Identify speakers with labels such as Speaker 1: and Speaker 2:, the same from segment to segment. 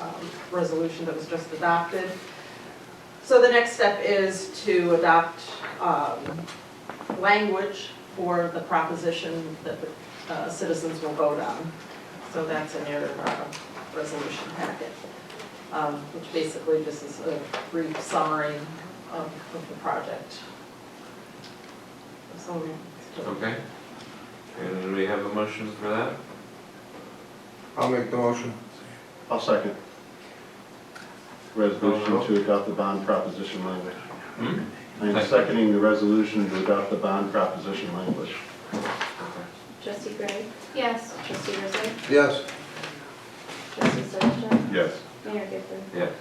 Speaker 1: um, resolution that was just adopted. So the next step is to adopt um, language for the proposition that the uh, citizens will vote on. So that's in your uh, resolution packet, um, which basically this is a brief summary of of the project. So,
Speaker 2: Okay. And do we have a motion for that?
Speaker 3: I'll make the motion.
Speaker 4: I'll second. Resolution to adopt the bond proposition language.
Speaker 2: Hmm?
Speaker 4: I'm seconding the resolution to adopt the bond proposition language.
Speaker 5: Trustee Gray? Yes. Trustee Rizzo?
Speaker 3: Yes.
Speaker 5: Trustee Solichak?
Speaker 4: Yes.
Speaker 5: Mayor Gifford?
Speaker 2: Yes.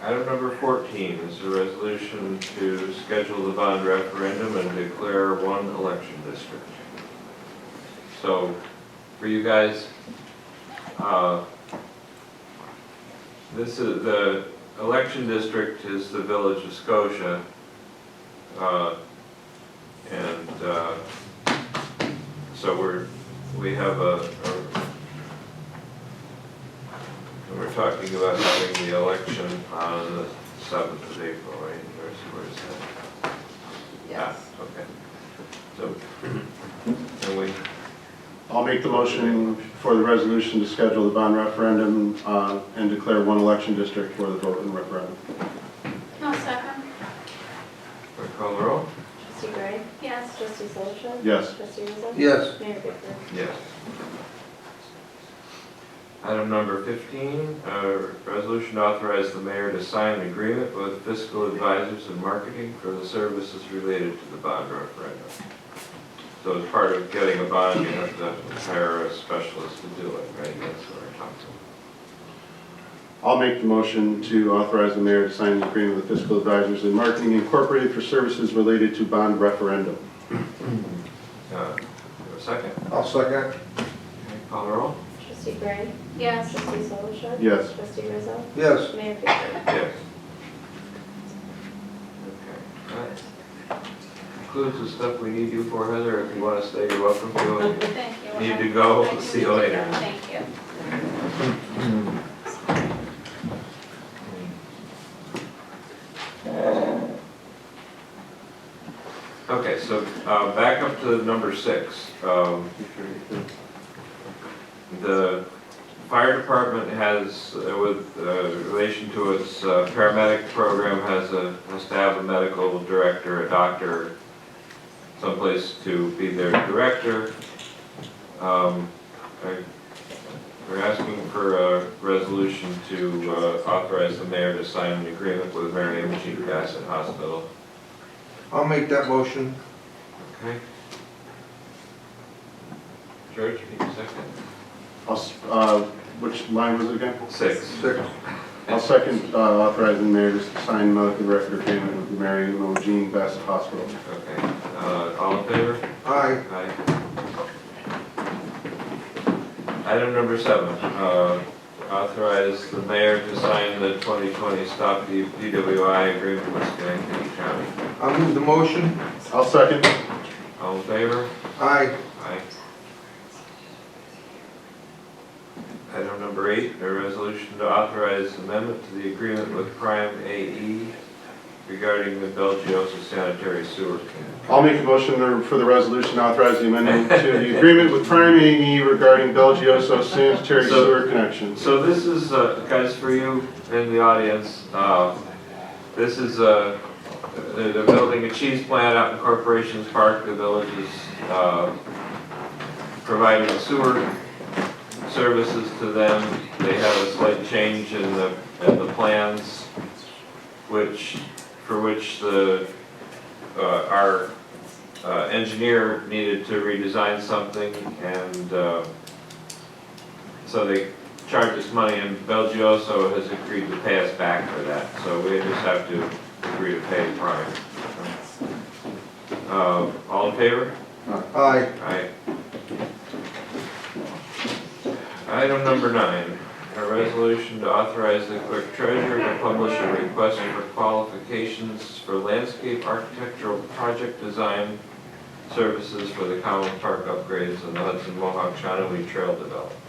Speaker 2: Item number 14 is a resolution to schedule the bond referendum and declare one election district. So for you guys, uh, this is, the election district is the village of Scotia. uh, And uh, so we're, we have a a and we're talking about having the election on the seventh of April, right, or is- where is that?
Speaker 1: yes.
Speaker 2: Ah, Okay. So, and we,
Speaker 4: I'll make the motion for the resolution to schedule the bond referendum uh, and declare one election district for the vote in referendum.
Speaker 5: No second.
Speaker 2: we call the roll?
Speaker 5: Trustee Gray? Yes. Trustee Solichak?
Speaker 4: Yes.
Speaker 5: Trustee Rizzo?
Speaker 3: Yes.
Speaker 5: Mayor Gifford?
Speaker 2: Yes. Item number fifteen, uh, resolution to authorize the mayor to sign an agreement with fiscal advisors and marketing for the services related to the bond referendum. So as part of getting a bond, you have to hire a specialist to do it, right, that's what I talked about.
Speaker 4: I'll make the motion to authorize the mayor to sign an agreement with fiscal advisors and marketing incorporated for services related to bond referendum.
Speaker 2: Uh, a second.
Speaker 3: I'll second.
Speaker 2: Call the roll?
Speaker 5: Trustee Gray? Yes. Trustee Solichak?
Speaker 4: Yes.
Speaker 5: Trustee Rizzo?
Speaker 3: Yes.
Speaker 5: Mayor Gifford?
Speaker 2: Yes. Okay. That Concludes the stuff we need you for, Heather. If you want to stay, you're welcome to.
Speaker 5: Thank
Speaker 2: If you Need to go, see you later.
Speaker 5: Thank you.
Speaker 2: Okay, so uh, back up to number six. Um, The fire department has, uh, with uh, relation to its uh, paramedic program, has a, has to have a medical director, a doctor, someplace to be their director. Um, I- We're asking for a resolution to uh, authorize the mayor to sign an agreement with Mary M. G. Bassett Hospital
Speaker 3: I'll make that motion.
Speaker 2: Okay. George, you need a second?
Speaker 4: I'll s- uh, Which line was it again?
Speaker 2: Six.
Speaker 3: Six.
Speaker 4: I'll second uh, authorizing the mayor to sign medical record agreement with Mary Mo Jean Bassett Hospital.
Speaker 2: Okay, uh, all in favor?
Speaker 3: Aye.
Speaker 2: Aye. Item number seven, uh, authorize the mayor to sign the 2020 Stop D- DWI agreement with Schenectady County.
Speaker 3: I'll move the motion.
Speaker 4: I'll second.
Speaker 2: All in favor?
Speaker 3: Aye.
Speaker 2: Aye. Item number eight, a resolution to authorize amendment to the agreement with Prime AE regarding the Belgioso sanitary sewer. con-
Speaker 4: I'll make a motion to- for the resolution authorizing amendment to the agreement with Prime AE regarding Belgioso sanitary
Speaker 2: So-
Speaker 4: sewer connections.
Speaker 2: So this is, uh, guys, for you in the audience, uh, this is, uh, they're they're building a cheese plant out in Corporations Park, the village is uh, providing sewer services to them. They have a slight change in the, in the plans, which, for which the, uh, our uh, engineer needed to redesign something, and uh, so they charge us money, and Belgioso has agreed to pay us back for that, so we just have to agree to pay Prime. Uh, all in favor?
Speaker 3: Aye.
Speaker 2: Aye. Item number nine, a resolution to authorize the clerk treasurer to publish a request for qualifications for landscape architectural project design services for the Common Park upgrades and the Hudson Mohawk Shawnee Trail development.